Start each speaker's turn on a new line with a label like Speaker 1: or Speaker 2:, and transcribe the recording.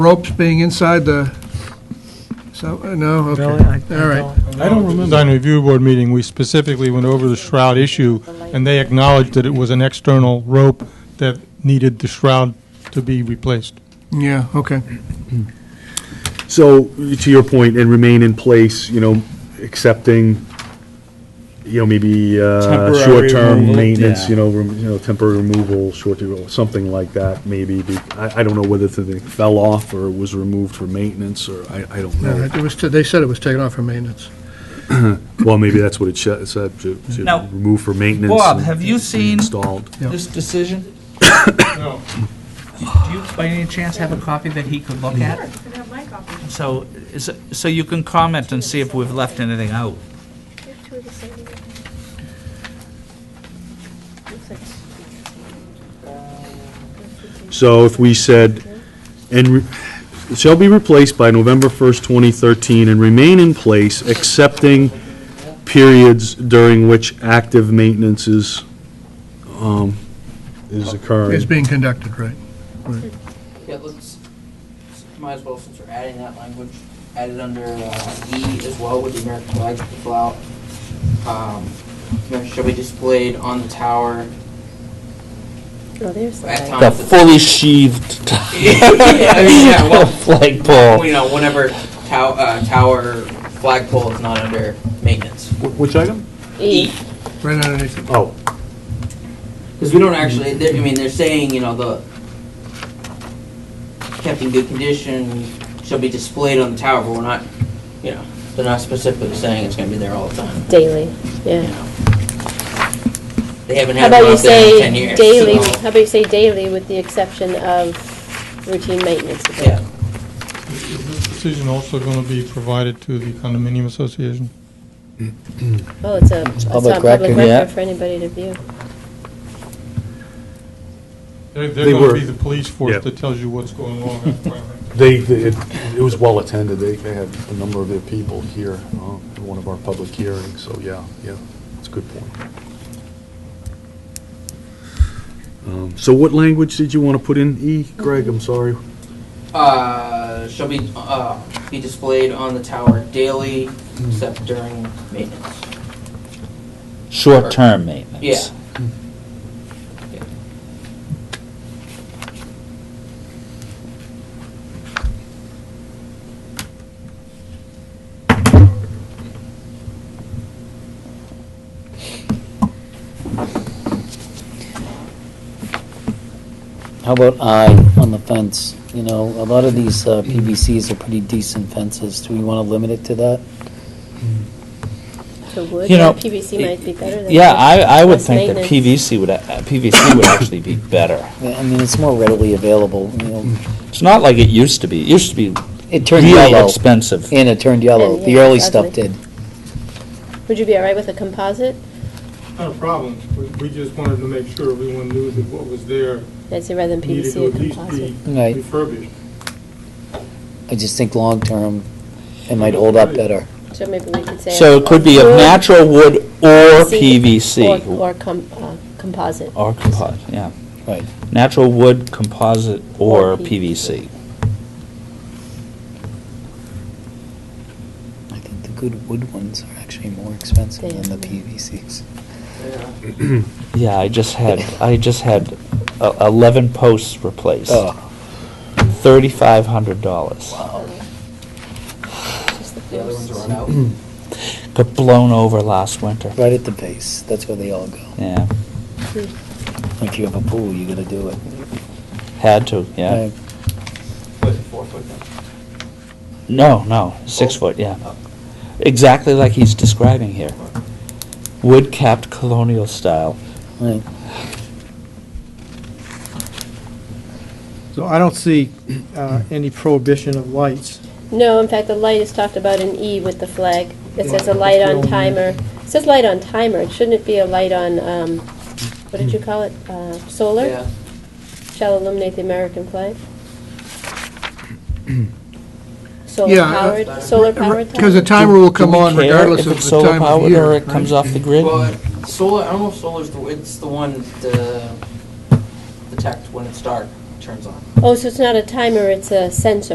Speaker 1: ropes being inside the, so, uh, no, okay.
Speaker 2: Really? I- I
Speaker 1: All right.
Speaker 2: don't-
Speaker 3: I don't remember. Design Review Board meeting, we specifically went over the shroud issue, and they acknowledged that it was an external rope that needed the shroud to be replaced.
Speaker 1: Yeah, okay.
Speaker 4: So, to your point, and remain in place, you know, accepting, you know, maybe uh,
Speaker 5: Temporary
Speaker 4: short-term
Speaker 5: removal,
Speaker 4: maintenance,
Speaker 5: yeah.
Speaker 4: you know, rem- you know, temporary removal, short, something like that, maybe. be- I, I don't know whether the thing fell off or was removed for maintenance, or I, I don't
Speaker 1: No,
Speaker 4: know.
Speaker 1: It was, they said it was taken off for maintenance.
Speaker 4: Well, maybe that's what it sh- it said, to, to
Speaker 6: Now,
Speaker 4: remove for maintenance.
Speaker 6: Bob,
Speaker 4: and
Speaker 6: have you seen-
Speaker 4: Installed.
Speaker 6: this decision? Do you, by any chance, have a copy that he could look at?
Speaker 7: I have my copy.
Speaker 6: So, is- so you can comment and see if we've left anything out.
Speaker 7: We have two of the same. Looks like
Speaker 4: So if we said, and re- it shall be replaced by November 1st, 2013, and remain in place, excepting periods during which active maintenance is, um, is
Speaker 1: It's
Speaker 4: occurring.
Speaker 1: being conducted, right?
Speaker 8: Yeah, let's, might as well, since we're adding that language, add it under uh, E as well with the American flag to flout. Um, you know, Shall be displayed on the tower
Speaker 7: Oh, there's the
Speaker 8: at
Speaker 7: light.
Speaker 8: times. that-
Speaker 5: sheathed
Speaker 8: Yeah, I mean, yeah, well,
Speaker 5: flagpole.
Speaker 8: You know, whenever tow- uh, tower flagpole is not under maintenance.
Speaker 4: Wh- Which item?
Speaker 7: E.
Speaker 1: Right underneath it.
Speaker 4: Oh,
Speaker 8: Because we don't actually, they're- I mean, they're saying, you know, the, kept in good condition, shall be displayed on the tower, but we're not, you know, they're not specifically saying it's gonna be there all the time.
Speaker 7: Daily, yeah.
Speaker 8: They haven't
Speaker 7: How
Speaker 8: had one
Speaker 7: about you
Speaker 8: up there in
Speaker 7: say
Speaker 8: 10 years.
Speaker 7: daily,
Speaker 8: so-
Speaker 7: how about you say daily with the exception of routine maintenance? of it?
Speaker 8: Yeah.
Speaker 7: Well,
Speaker 4: yeah.
Speaker 7: it's
Speaker 4: Is this
Speaker 7: not decision
Speaker 4: decision also going to be provided to the condominium association?
Speaker 7: Well, it's a, it's
Speaker 5: public
Speaker 7: on public
Speaker 5: record, yeah.
Speaker 7: record for anybody to view.
Speaker 4: They
Speaker 5: They're going
Speaker 4: were-
Speaker 5: to be the police
Speaker 4: Yeah.
Speaker 5: force that tells you what's going wrong. at the fire.
Speaker 4: They, they- it it was well attended, they, they had a number of their people here uh, in one of our public hearings, so yeah, yeah, it's a good point. Um, So what language did you want to put in E, Greg, I'm sorry?
Speaker 8: Uh, shall be, uh, be displayed on the tower daily, except during maintenance.
Speaker 5: Short-term maintenance.
Speaker 8: Yeah.
Speaker 9: How about I on the fence? You know, a lot of these uh, PVCs are pretty decent fences. Do we want to limit it to that?
Speaker 7: So wood,
Speaker 5: You know,
Speaker 7: PVC might be better than.
Speaker 5: Yeah,
Speaker 7: wood.
Speaker 5: I, I would
Speaker 7: Less
Speaker 5: think that
Speaker 7: maintenance.
Speaker 5: PVC would, uh, a- PVC would actually be better.
Speaker 9: I mean, it's more readily available, you know.
Speaker 5: It's not like it used to be. It used to be
Speaker 9: It turned
Speaker 5: really
Speaker 9: yellow,
Speaker 5: expensive.
Speaker 9: and it turned yellow.
Speaker 7: And,
Speaker 9: The
Speaker 7: yeah,
Speaker 9: early
Speaker 7: it's
Speaker 9: stuff
Speaker 7: ugly.
Speaker 9: did.
Speaker 7: Would you be all right with a composite?
Speaker 10: Not a problem. We- We just wanted to make sure everyone knew that what was there
Speaker 7: I'd say rather than
Speaker 10: needed
Speaker 7: PVC,
Speaker 10: to
Speaker 7: a
Speaker 10: at least
Speaker 7: composite.
Speaker 10: be
Speaker 9: Right.
Speaker 10: refurbished.
Speaker 9: I just think long-term, it might hold up better.
Speaker 7: So maybe we could say.
Speaker 5: So it could be of
Speaker 7: wood,
Speaker 5: natural wood or
Speaker 7: or-
Speaker 5: PVC.
Speaker 7: Or com, uh, composite.
Speaker 5: Or composite, yeah.
Speaker 9: Right.
Speaker 5: Natural wood, composite,
Speaker 7: Or
Speaker 5: or PVC.
Speaker 7: PVC.
Speaker 9: I think the good wood ones are actually more expensive than the PVCs.
Speaker 5: Yeah, I just had, I just had uh, 11 posts replaced.
Speaker 9: Oh,
Speaker 5: $3,500.
Speaker 9: wow.
Speaker 7: Just the
Speaker 8: The other ones
Speaker 7: posts.
Speaker 8: are run out.
Speaker 5: Got blown over last winter.
Speaker 9: Right at the base. That's where they all go.
Speaker 5: Yeah,
Speaker 9: If you have a pool, you gotta do it.
Speaker 5: had to, yeah.
Speaker 9: Right.
Speaker 8: Was it four foot?
Speaker 5: No, no, six
Speaker 8: Oh.
Speaker 5: foot, yeah. Exactly like he's describing here. Wood capped colonial style.
Speaker 9: Right.
Speaker 2: So I don't see uh, any prohibition of lights.
Speaker 7: No, in fact, the light is talked about in E with the flag. It says a light on timer. It says light on timer. Shouldn't it be a light on, um, what did you call it? Uh, solar?
Speaker 8: Yeah.
Speaker 7: Shall illuminate the American flag? Solar
Speaker 1: Yeah, uh,
Speaker 7: powered, solar powered tower?
Speaker 1: Because the timer will come
Speaker 5: Do we
Speaker 1: on
Speaker 5: care
Speaker 1: regardless
Speaker 5: if
Speaker 1: of
Speaker 5: it's
Speaker 1: the time of
Speaker 5: solar-powered
Speaker 1: year.
Speaker 5: Or it
Speaker 1: right?
Speaker 5: comes off the grid?
Speaker 8: Well, solar, I don't know if solar's the, it's the one, the, detect when it's dark, turns on.
Speaker 7: Oh, so it's not a timer, it's a sensor.